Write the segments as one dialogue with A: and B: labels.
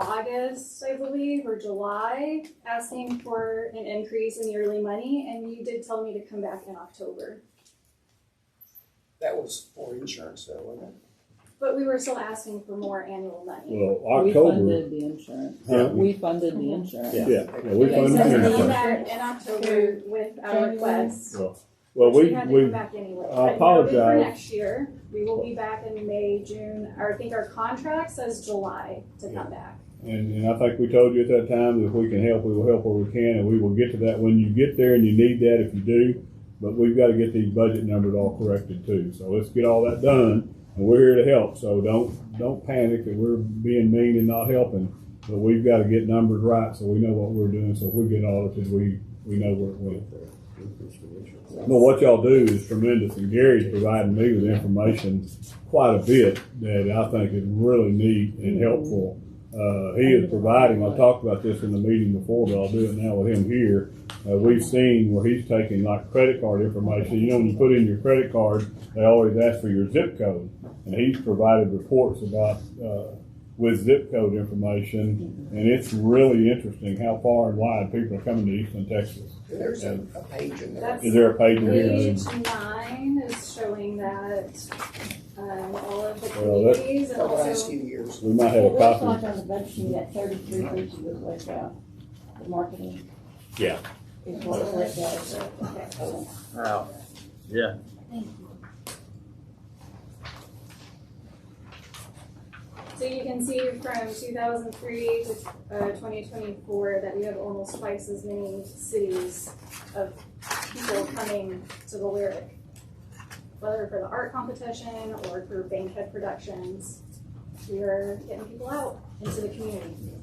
A: August, I believe, or July, asking for an increase in yearly money, and you did tell me to come back in October.
B: That was for insurance though, wasn't
A: But we were still asking for more annual money.
C: Well,
D: We
C: October,
D: funded the insurance.
C: Huh?
D: We funded the insurance.
C: yeah, yeah, we
A: So
C: funded
D: I'm not
A: we
C: the
D: gonna-
A: came
C: insurance.
A: back in October with our request. We
C: Well, we,
A: had to come
C: we,
A: back anyway.
C: I
A: But now
C: apologize.
A: For next year, we will be back in May, June, or I think our contract says July to come back.
C: and, and I think we told you at that time that if we can help, we will help where we can, and we will get to that when you get there and you need that if you do. But we've gotta get these budget numbers all corrected too, so let's get all that done, and we're here to help, so don't, don't panic that we're being mean and not helping. But we've gotta get numbers right, so we know what we're doing, so if we get audited, we, we know where it went.
B: it?
C: Well, what y'all do is tremendous, and Gary's providing me with information quite a bit that I think is really neat and helpful. Uh, he is providing, I talked about this in the meeting before, but I'll do it now with him here. Uh, we've seen where he's taking like credit card information, you know, when you put in your credit card, they always ask for your zip code. And he's provided reports about, uh, with zip code information, and it's really interesting how far and wide people are coming to Eastern Texas.
B: There's a, a page in there.
A: That's-
C: Is there a page in here?
A: Page nine is showing that, um, all of the
C: Well, that-
A: communities and
B: The last
A: also,
B: few years.
C: We might have
E: It
C: a
E: looks
C: copy.
E: like on the budget, you got thirty-three pages was left out, the marketing.
F: Yeah.
E: Is what was left out.
F: Wow. Yeah.
A: so you can see from two thousand three to, uh, twenty twenty-four that we have almost twice as many cities of people coming to the Lyric. Whether for the art competition or for Bankhead Productions, we are getting people out into the community.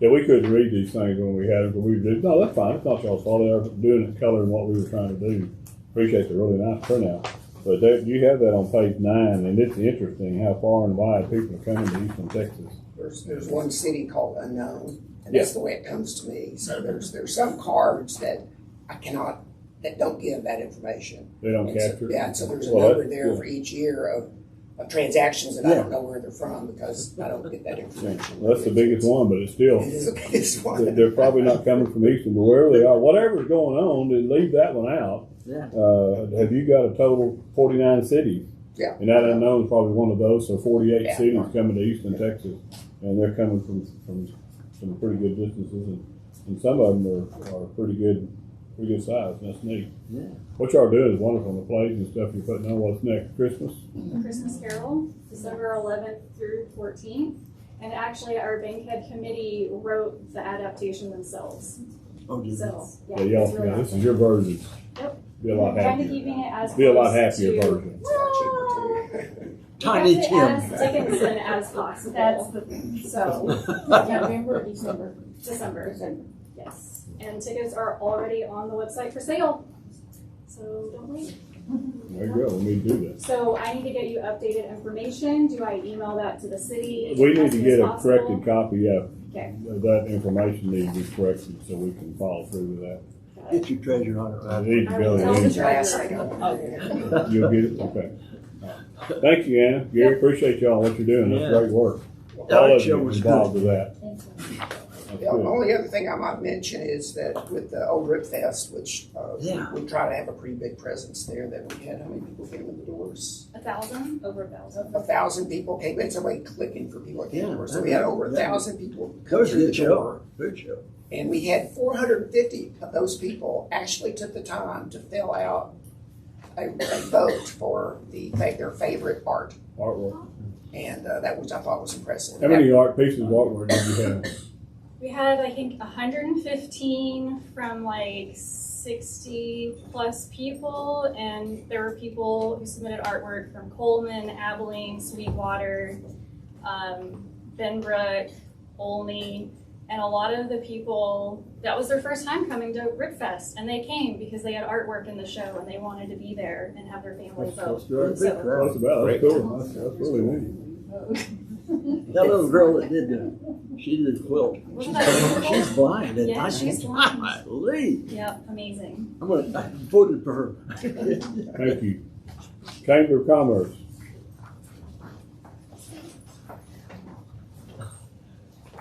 C: Yeah, we couldn't read these things when we had them, but we did, no, that's fine, it's not y'all's fault, they were doing it color and what we were trying to do. Appreciate the really nice printout, but that, you have that on page nine, and it's interesting how far and wide people are coming to Eastern Texas.
B: There's, there's one city called Unknown, and that's the way it comes to me. So there's, there's some cards that I cannot, that don't give that information.
C: They don't
B: And so-
C: capture. it.
B: Yeah, and so there's a
C: Well, that-
B: number there for each year of, of transactions, and I don't know where they're from because I don't get that information.
C: That's the biggest one, but it's still,
B: It is the biggest
C: they're,
B: one.
C: they're probably not coming from Eastern, but wherever they are, whatever's going on, then leave that one out.
D: Yeah.
C: Uh, have you got a total forty-nine cities?
B: Yeah.
C: And that unknown is probably one of those, so forty-eight
B: Yeah.
C: cities coming to Eastern Texas, and they're coming from, from some pretty good distances, and, and some of them are, are pretty good, pretty good size, and that's neat.
D: Yeah.
C: What y'all are doing is wonderful, the plays and stuff you're putting on, what's next, Christmas?
A: Christmas Carol, December eleventh through fourteenth. And actually, our Bankhead Committee wrote the adaptation themselves,
F: Oh,
A: so, yeah.
C: Yeah, y'all,
A: it's really
C: yeah, this
A: awesome.
C: is your version.
A: Yep.
C: Be a lot
A: Kind of
C: happier,
A: keeping it as.
C: be a lot
A: close
C: happier
A: to-
C: version.
B: It's a lot cheaper, too.
F: Tiny
A: Kept it
F: Tim.
A: As Dickinson as
E: That's
A: possible,
E: the, so,
F: Well,
E: November, December,
A: December,
E: December.
A: yes. And tickets are already on the website for sale, so don't wait.
C: There you go, we need to do that.
A: So I need to get you updated information, do I email that to the city?
C: We
A: as
C: need to
A: soon
C: get
A: as
C: a
A: possible?
C: corrected copy, yeah.
A: Okay.
C: That information needs to be corrected so we can follow through with that.
A: Got it.
F: Get your treasure on it,
C: I
F: right?
C: need to
A: I
C: go
A: will tell the Oh.
C: ahead.
B: Thank
C: and- You'll get it, okay. Thank you, Anna. Gary, appreciate y'all, what you're doing. That's
F: Yeah.
C: great work.
F: That
C: All of
F: show
C: you
F: was
C: involved with that. That's
B: The
C: good.
B: only other thing I might mention is that with the Old Rip Fest, which uh,
F: Yeah.
B: we try to have a pretty big presence there, that we had, how many people came in the doors?
A: A thousand, over a thousand.
B: A thousand people came in, somebody clicking for people that came in the doors. So we had over a
F: Yeah.
B: thousand people
F: That
B: come
F: was a
B: through the
F: good
B: door.
F: show. Good show.
B: And we had four hundred and fifty of those people actually took the time to fill out a a vote for the, their favorite art.
C: Artwork.
B: And uh, that was, I thought was impressive.
C: How many art pieces of artwork did you have?
A: We had, I think, 115 from like 60 plus people, and there were people who submitted artwork from Coleman, Abilene, Sweetwater, um, Benbrook, Olney, and a lot of the people that was their first time coming to Ripfest, and they came because they had artwork in the show and they wanted to be there and have their family vote.
F: Big
C: That's
F: crowd.
C: about,
F: Great.
C: that's cool. That's, that's really neat.
F: That little girl that did the, she did the quilt.
A: Wasn't that
F: She's,
A: beautiful?
F: she's blind and
A: Yeah,
F: I
A: she's
F: think,
A: blind.
F: golly,
A: Yep, amazing.
F: I'm gonna, I voted for her.
C: Thank you. Chamber of Commerce.